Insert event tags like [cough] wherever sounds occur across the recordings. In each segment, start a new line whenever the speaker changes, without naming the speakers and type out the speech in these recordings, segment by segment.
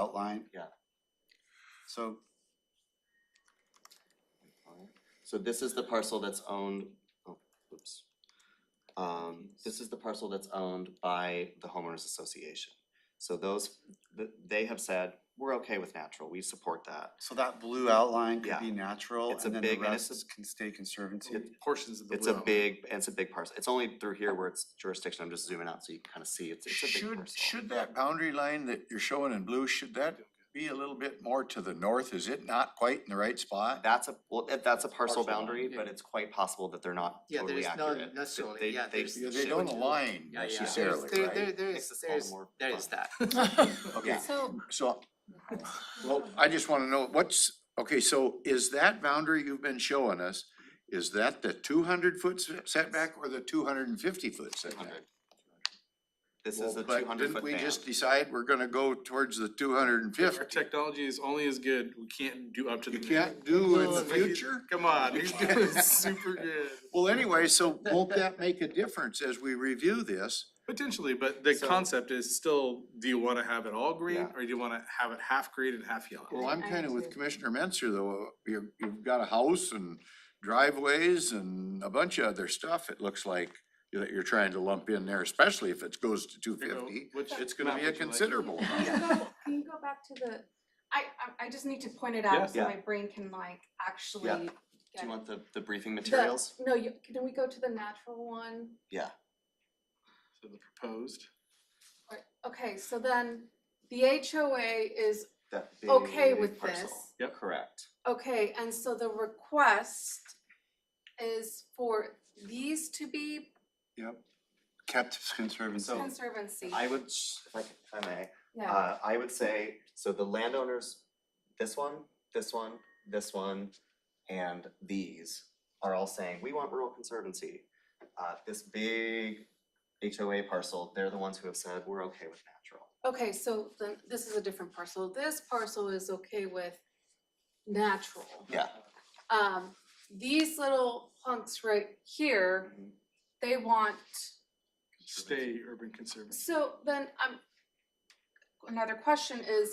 outline.
Yeah.
So,
So this is the parcel that's owned, oh, oops. Um, this is the parcel that's owned by the homeowners association. So those, th- they have said, we're okay with natural, we support that.
so that blue outline
Yeah.
could be natural
It's a
and then the
big- and
rest
it's
is- can stay conservancy.
It-
portions of the
It's a
blue.
big, it's a big parcel, it's only through here where it's jurisdiction, I'm just zooming out so you can kind of see, it's, it's a big parcel.
Should, should that boundary line that you're showing in blue, should that be a little bit more to the north? Is it not quite in the right spot?
That's a, well, that- that's a parcel
Parcel line,
boundary,
yeah.
but it's quite possible that they're not
Yeah,
totally
there's
accurate.
no
They-
necessarily,
they-
yeah,
they-
there's-
Yeah, They don't align
Yeah, yeah.
necessarily,
There's- There,
right?
there, there
Makes
is,
this all
there is,
more
there is
fun.
that.
[laughs]
Okay,
So,
so, well, I just wanna know what's, okay, so is that boundary you've been showing us, is that the two hundred foot s- setback or the two hundred and fifty foot setback?
200. This is
Well,
the
but
two hundred foot
Didn't we
band,
just decide we're gonna go towards the two hundred and
Our
fifty?
technology is only as good, we can't do up to the.
You can't do in the
Well, we-
future?
Come on,
[laughs]
[laughs] he's doing super good,
Well, anyway, so won't that make a difference as we review this?
potentially, but the
So-
concept is still, do you wanna have it all green,
Yeah.
or do you wanna have it half green and half yellow?
Well, I'm
I
kinda with
agree.
Commissioner Menzer though, uh, you, you've got a house and driveways and a bunch of other stuff, it looks like that you're trying to lump in there, especially if it goes to two
There you go.
fifty,
Which
it's gonna
map
be a
would you like?
[laughs]
considerable
can
amount.
you go, can you go back to the, I, I, I just need to point it out so
Yeah.
my brain can like actually
Yeah. do
get
you want the, the briefing
the-
materials?
No, you, can we go to the natural one?
So the proposed,
Or- Okay, so then the HOA is,
That
okay
big
with
parcel.
this.
Yep.
Correct.
okay, and so the request is for these to be
kept conservancy.
So-
conservancy,
I would, sh- if I can- if I may,
yeah,
uh, I would say, so the landowners, this one, this one, this one, and these are all saying, we want rural conservancy. Uh, this big HOA parcel, they're the ones who have said, we're okay with natural.
okay, so then this is a different parcel, this parcel is okay with natural.
Yeah.
Um, these little hunks right here they want,
stay urban conservancy.
so then, um, another question is,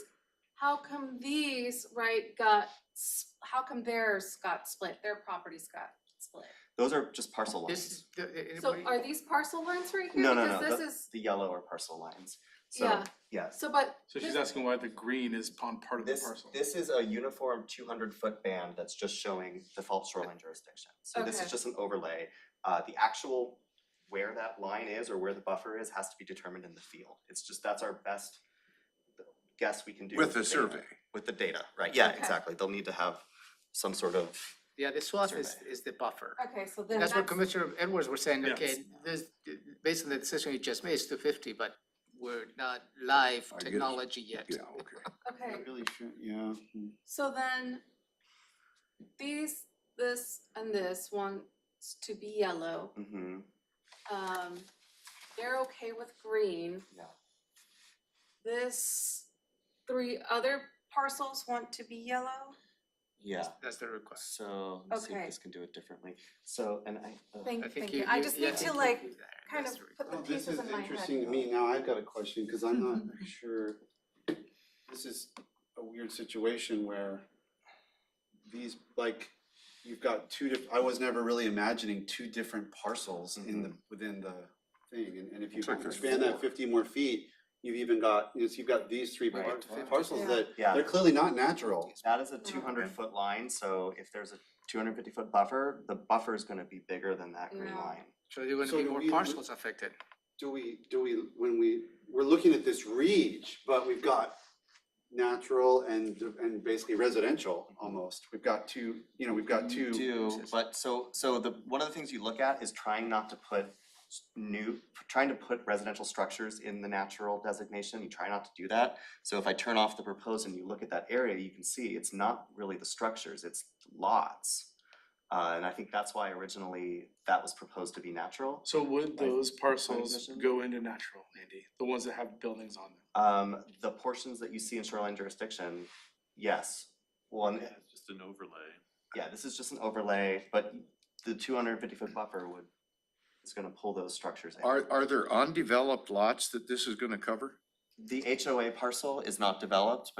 how come these, right, got, s- how come theirs got split, their properties got split?
Those are just parcel
This is,
lines,
the-
So
anybody-
are these parcel lines right here?
No, no, no,
Because this is,
the yellow are parcel lines. So,
yeah,
yes,
so but,
So she's
this-
asking why the green is on part of the
this,
parcel.
this is a uniform two hundred foot band that's just showing default shoreline jurisdiction. So this
Okay.
is just an overlay. Uh, the actual where that line is or where the buffer is has to be determined in the field. It's just, that's our best guess we can do.
With
the
a
data-
survey,
With the data, right, yeah,
Okay.
exactly. They'll need to have some sort of,
yeah, the swath is,
survey.
is the buffer.
okay, Oh, so then
That's what
that's,
Commissioner Edwards was saying,
Yeah.
okay, this, based on the decision you just made, it's two fifty, but we're not live
I guess.
technology yet.
yeah, okay.
okay,
Really, should- yeah. mm.
so then these, this and this wants to be yellow,
mhm,
um, they're okay with green.
yeah.
This, three other parcels want to be yellow?
Yeah,
That's the request.
so, let's see if
Okay.
this can do it differently. So, and I, uh,
Thank,
I
thank
think
you,
you,
I
you-
just
yeah, I
need to
think you
like,
do that.
kind
That's
of
the request.
put the
Oh, this
pieces
is
in my head.
interesting to me. Now I've got a question, cause I'm
[laughs]
not very sure. This is a weird situation where these, like, you've got two diff, I was never really imagining two different parcels in
Mm-hmm.
the, within the thing. And, and if you
It's like there's
expand that
four.
fifty more feet, you've even got, you know, so you've got these three
Right.
par-
Wow.
parcels
Yeah.
that,
yeah.
they're clearly not natural.
That is a two hundred foot line, so if there's a two hundred fifty foot buffer, the buffer is gonna be bigger than that green
Yeah.
line.
So there are
So
gonna be
do
more
we-
parcels affected.
do we, do we, when we, we're looking at this reach, but we've got natural and, and basically residential almost. We've got two, you know, we've got
You
two,
Do, but so, so the, one of the things you look at is trying not to put s- new, trying to put residential structures in the natural designation, you try not to do that. So if I turn off the proposed and you look at that area, you can see it's not really the structures, it's lots. Uh, and I think that's why originally that was proposed to be natural.
So would
Planning-
those parcels
commission?
go into natural, Andy, the ones that have buildings on them?
Um, the portions that you see in shoreline jurisdiction, yes, one. It's just an overlay. Yeah, this is just an overlay, but the two hundred and fifty foot buffer would, is gonna pull those structures in.
Are, are there undeveloped lots that this is gonna cover?
The HOA parcel is not developed, but